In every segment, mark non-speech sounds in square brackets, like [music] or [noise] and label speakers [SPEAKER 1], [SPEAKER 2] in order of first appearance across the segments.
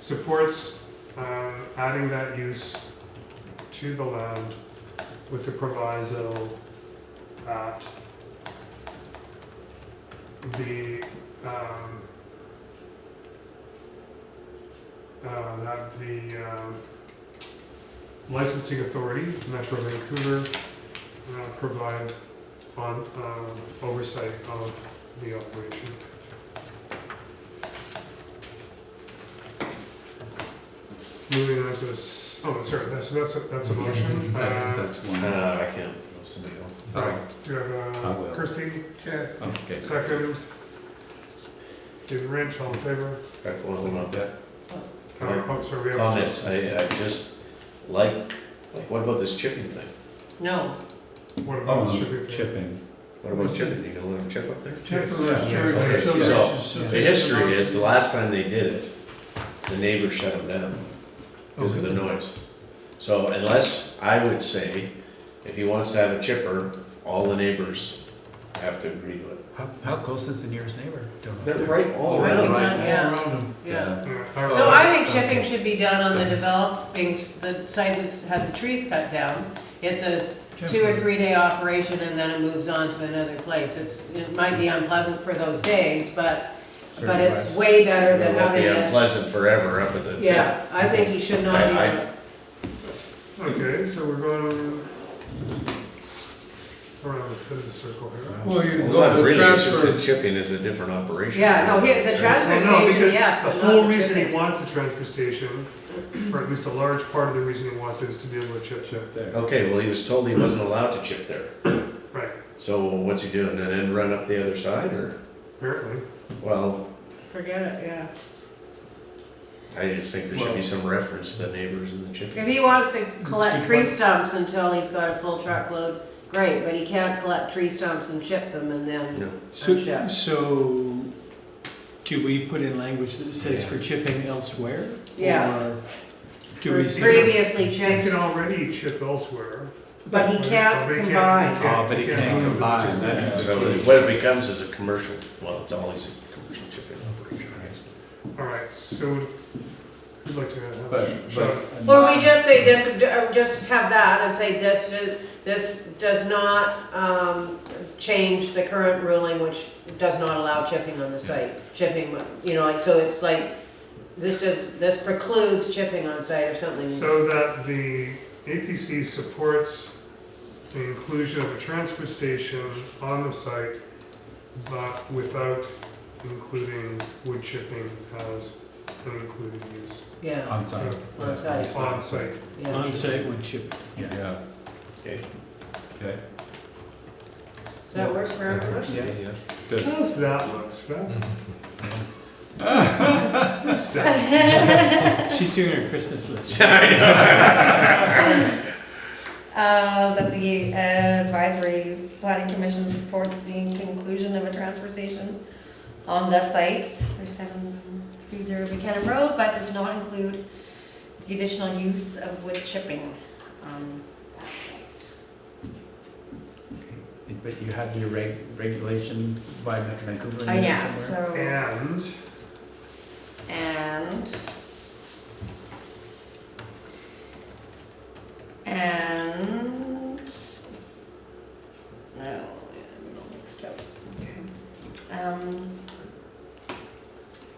[SPEAKER 1] supports um, adding that use to the land with the proviso that the, um, uh, that the um, licensing authority, Metro Vancouver, uh, provide on um, oversight of the operation. Moving on to this, oh, sorry, that's, that's, a- that's a motion.
[SPEAKER 2] That's,
[SPEAKER 1] Uh,
[SPEAKER 2] that's one.
[SPEAKER 3] Uh, I can't, somebody else.
[SPEAKER 1] Right, do you have,
[SPEAKER 2] I
[SPEAKER 1] uh,
[SPEAKER 2] will.
[SPEAKER 1] Kirsty,
[SPEAKER 3] Okay.
[SPEAKER 2] Oh, Okay.
[SPEAKER 1] second? David Rynch, all in favor?
[SPEAKER 3] Back one, hold on, back.
[SPEAKER 1] Uh,
[SPEAKER 3] Right.
[SPEAKER 1] oh, sorry, we have-
[SPEAKER 3] Comments, I, I just, like, like, what about this chipping thing?
[SPEAKER 4] No,
[SPEAKER 1] What about
[SPEAKER 2] Oh,
[SPEAKER 1] shipping?
[SPEAKER 2] chipping.
[SPEAKER 3] What about chipping, you gonna let them chip up there?
[SPEAKER 1] Yes,
[SPEAKER 2] Yeah, yeah,
[SPEAKER 1] sure,
[SPEAKER 3] okay,
[SPEAKER 1] so-
[SPEAKER 3] so- The history is, the last time they did it, the neighbor shut them down because of the noise. So unless, I would say, if he wants to have a chipper, all the neighbors have to agree to it.
[SPEAKER 5] How, how close is the nearest neighbor? Don't know.
[SPEAKER 3] They're right all
[SPEAKER 5] Right,
[SPEAKER 3] around.
[SPEAKER 5] right,
[SPEAKER 4] Yeah.
[SPEAKER 5] all around 'em.
[SPEAKER 4] yeah.
[SPEAKER 1] Yeah, all
[SPEAKER 3] Oh,
[SPEAKER 4] So
[SPEAKER 1] right.
[SPEAKER 4] I think chipping should be done on the developing, s- the site that's had the trees cut down. It's a two or three day operation and then it moves on to another place. It's, it might be unpleasant for those days, but, but it's way better
[SPEAKER 3] It
[SPEAKER 4] than
[SPEAKER 3] won't
[SPEAKER 4] having
[SPEAKER 3] be
[SPEAKER 4] it.
[SPEAKER 3] unpleasant forever up at the.
[SPEAKER 4] uh, Yeah, I think you should not
[SPEAKER 3] I-
[SPEAKER 4] be,
[SPEAKER 1] Okay, so we're going around this bit of a circle here.
[SPEAKER 5] Well, you
[SPEAKER 3] Well,
[SPEAKER 5] go
[SPEAKER 3] not
[SPEAKER 5] to
[SPEAKER 3] really, it's just
[SPEAKER 5] transfer.
[SPEAKER 3] that chipping is a different operation.
[SPEAKER 4] yeah, no, here, the transfer
[SPEAKER 1] Well, Oh, no,
[SPEAKER 4] station,
[SPEAKER 1] because
[SPEAKER 4] yes,
[SPEAKER 1] The
[SPEAKER 4] but not
[SPEAKER 1] whole
[SPEAKER 4] the
[SPEAKER 1] reason he
[SPEAKER 4] chipping.
[SPEAKER 1] wants a transfer station, or at least a large part of the reason he wants it is to be able to chip chip.
[SPEAKER 2] Chip there.
[SPEAKER 3] Okay, well, he was told he wasn't allowed to chip there.
[SPEAKER 1] Right,
[SPEAKER 3] So what's he doing? And then run up the other side or,
[SPEAKER 1] apparently.
[SPEAKER 3] well,
[SPEAKER 4] Forget it, yeah.
[SPEAKER 3] I just think there should be
[SPEAKER 2] Well-
[SPEAKER 3] some reference to the neighbors and the chipping.
[SPEAKER 4] If he wants to
[SPEAKER 5] It's
[SPEAKER 4] collect
[SPEAKER 5] good
[SPEAKER 4] tree
[SPEAKER 5] point.
[SPEAKER 4] stumps until he's got a full truckload, great, but he can't collect tree stumps and chip them and then.
[SPEAKER 3] No.
[SPEAKER 4] Yeah.
[SPEAKER 5] So, so do we put in language that says for chipping elsewhere?
[SPEAKER 4] Yeah.
[SPEAKER 5] Or Do we say?
[SPEAKER 4] Previously
[SPEAKER 1] He can
[SPEAKER 4] chipped,
[SPEAKER 1] already chip elsewhere.
[SPEAKER 4] but he can't
[SPEAKER 1] But he
[SPEAKER 4] combine.
[SPEAKER 2] Oh, but he can't combine, that's
[SPEAKER 3] So
[SPEAKER 2] the key.
[SPEAKER 3] what it becomes is a commercial, well, it's always a commercial chipping operation, I guess.
[SPEAKER 1] All right, so we'd like to have
[SPEAKER 2] But,
[SPEAKER 1] a shot.
[SPEAKER 2] but.
[SPEAKER 4] Or we just say this, uh, just have that and say this, do- this does not, um, change the current ruling, which does not allow chipping on the site. Chipping, you know, like, so it's like, this does, this precludes chipping on site or something.
[SPEAKER 1] So that the APC supports the inclusion of a transfer station on the site, but without including wood chipping as an included use
[SPEAKER 4] Yeah,
[SPEAKER 5] On site.
[SPEAKER 4] On site.
[SPEAKER 1] on site.
[SPEAKER 4] yeah.
[SPEAKER 5] On site would chip, yeah.
[SPEAKER 2] Yeah,
[SPEAKER 3] Okay.
[SPEAKER 2] okay.
[SPEAKER 4] That works for everyone?
[SPEAKER 5] Yeah.
[SPEAKER 3] Yeah.
[SPEAKER 2] Does,
[SPEAKER 1] How's that look, Steph?
[SPEAKER 2] Mm-hmm.
[SPEAKER 1] Steph,
[SPEAKER 5] She's doing her Christmas list.
[SPEAKER 3] [laughs]
[SPEAKER 6] Uh, that the advisory planning commission supports the conclusion of a transfer station on the site for seven three zero Buchanan Road, but does not include the additional use of wood chipping um, on that site.
[SPEAKER 5] But you have your reg, regulation by Metro Vancouver. in
[SPEAKER 6] Uh,
[SPEAKER 5] there
[SPEAKER 6] yeah,
[SPEAKER 5] somewhere?
[SPEAKER 6] so,
[SPEAKER 1] and
[SPEAKER 6] and and no, I'm all mixed up. Okay. Um,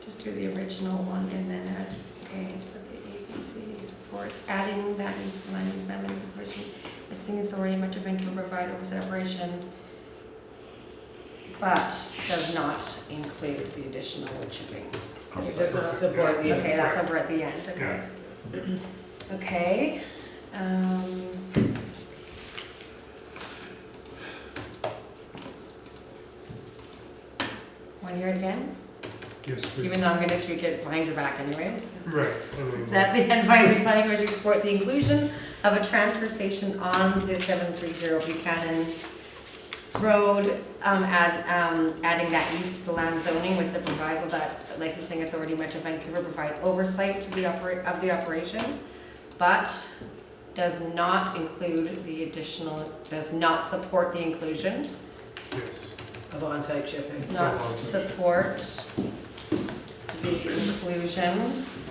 [SPEAKER 6] just do the original one and then add, okay, for the ABC supports, adding that into the land use amendment provision, listing authority in Metro Vancouver provide oversight operation, but does not include the additional wood chipping.
[SPEAKER 4] It does not support the.
[SPEAKER 6] Okay, that's over at the end, okay. Okay, um. Want to hear it again?
[SPEAKER 1] yes, please.
[SPEAKER 6] Even though I'm gonna tweak it behind your back anyways.
[SPEAKER 1] Right. I mean,
[SPEAKER 6] That the advisory planning commission support the inclusion of a transfer station on the seven three zero Buchanan Road, um, add, um, adding that use to the land zoning with the proviso that licensing authority Metro Vancouver provide oversight to the operate, of the operation, but does not include the additional, does not support the inclusion,
[SPEAKER 1] yes.
[SPEAKER 4] Of on-site chipping.
[SPEAKER 6] not support the inclusion